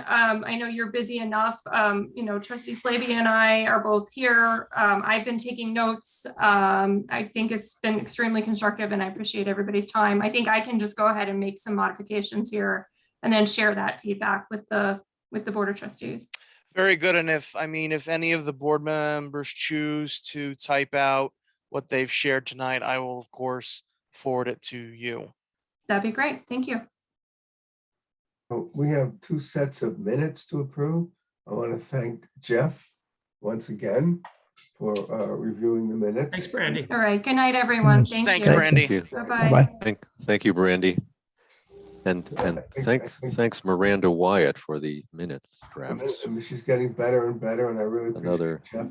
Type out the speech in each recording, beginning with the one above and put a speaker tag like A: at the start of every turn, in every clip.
A: Um, I know you're busy enough. Um, you know, trustee Slavy and I are both here. Um, I've been taking notes. Um, I think it's been extremely constructive and I appreciate everybody's time. I think I can just go ahead and make some modifications here and then share that feedback with the, with the board of trustees.
B: Very good. And if, I mean, if any of the board members choose to type out what they've shared tonight, I will of course forward it to you.
A: That'd be great. Thank you.
C: Oh, We have two sets of minutes to approve. I want to thank Jeff once again for uh, reviewing the minutes.
D: Thanks, Brandy.
A: All right. Good night, everyone. Thank you.
B: Thanks,
A: Bye
B: Brad. Brandy.
E: Thank you.
A: Bye-bye.
E: Thank, thank you, Brandy. And, and thanks, thanks Miranda Wyatt for the minutes
C: And
E: drafts.
C: then She's getting better and better, and I really appreciate
E: Another
C: Jeff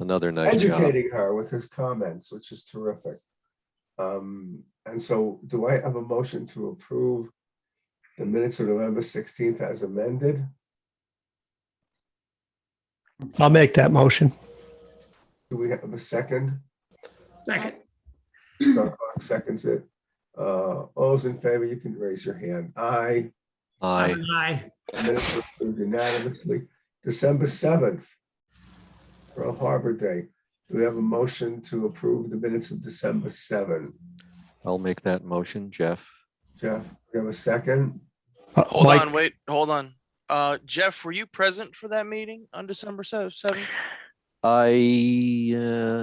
E: Another nice job.
C: educating her with his comments, which is terrific. Um, And so do I have a motion to approve the minutes of November 16th as amended?
F: I'll make that motion.
C: Do we have a second?
D: Second.
C: Doug Clark Seconds it. Uh, All those in favor, you can raise your hand. Aye.
E: Aye.
D: Aye.
C: Minutes were approved unanimously. December seventh, Pearl Harbor Day. Do we have a motion to approve the minutes of December seven?
E: I'll make that motion, Jeff.
C: Jeff, do we have a second?
F: Uh,
B: Hold
F: Mike,
B: on, wait, hold on. Uh, Jeff, were you present for that meeting on December sev- seventh?
E: I. uh,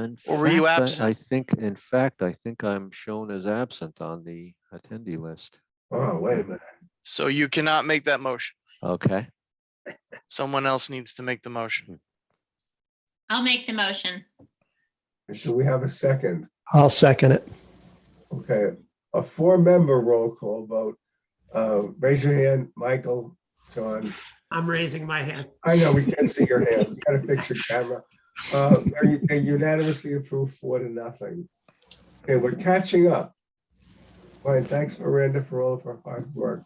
E: in
B: Or were you
E: fact, I-
B: absent?
E: I think, in fact, I think I'm shown as absent on the attendee list.
C: Oh, wait a minute.
B: So you cannot make that motion.
E: Okay,
B: Someone else needs to make the motion.
G: I'll make the motion.
C: Do we have a second?
F: I'll second it.
C: Okay, a four-member roll call vote. Uh, Raise your hand, Michael, John.
D: I'm raising my hand.
C: I know, we can't see your hand. You gotta fix your camera. Uh, They they unanimously approved four to nothing. Okay, we're catching up. Fine, thanks Miranda for all of our hard work.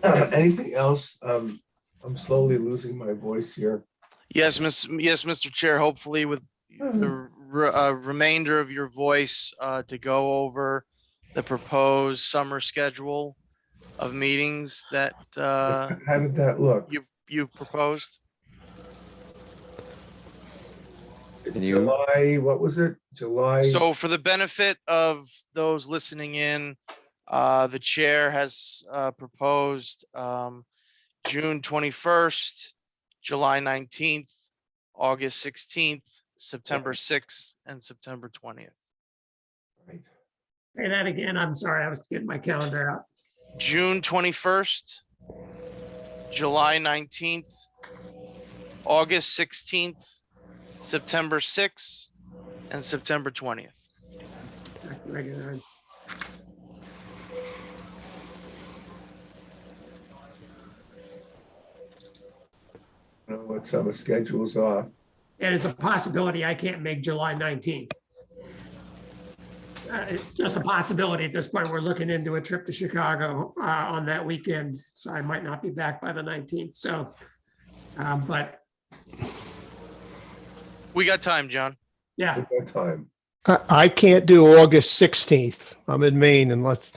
C: Anything else? Um, I'm slowly losing my voice here.
B: Yes, Miss, yes, Mr. Chair, hopefully with the re- uh, remainder of your voice uh, to go over the proposed summer schedule of meetings that uh,
C: How did that look?
B: you, you proposed.
E: Can you-
C: July, what was it? July?
B: So for the benefit of those listening in, uh, the chair has, uh, proposed, um, June twenty-first, July nineteenth, August sixteenth, September sixth, and September twentieth.
C: Right.
D: Say that again. I'm sorry. I was getting my calendar out.
B: June twenty-first, July nineteenth, August sixteenth, September sixth, and September twentieth.
D: Back to regular.
C: I don't Know what summer schedules are.
D: And it's a possibility I can't make July 19th. Uh, It's just a possibility at this point. We're looking into a trip to Chicago uh, on that weekend, so I might not be back by the 19th, so. um, But,
B: We got time, John.
D: yeah,
C: At that time.
F: I, I can't do August 16th. I'm in Maine unless,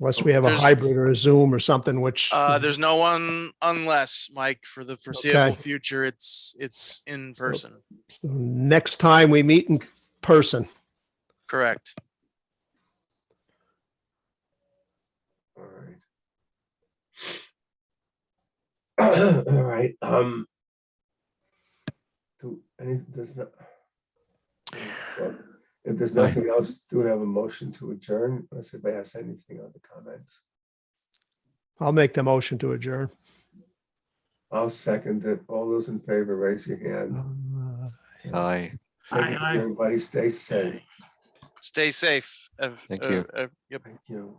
F: unless we have a
B: There's-
F: hybrid or a Zoom or something, which
B: Uh, there's no one unless Mike for the foreseeable future, it's, it's in
F: So-
B: person.
F: next time we meet in person.
B: Correct.
C: All right. All right, um. Do, any, does not. Well, If there's
E: Aye.
C: nothing else, do we have a motion to adjourn? Unless anybody has anything on the comments.
F: I'll make the motion to adjourn.
C: I'll second it. All those in favor, raise your hand.
F: Uh,
E: aye.
D: Aye,
C: Thank you,
D: aye.
C: Everybody stay safe.
B: Stay safe. ev-
E: Thank
B: ev-
E: you.
B: ev- Yep.
C: Thank you.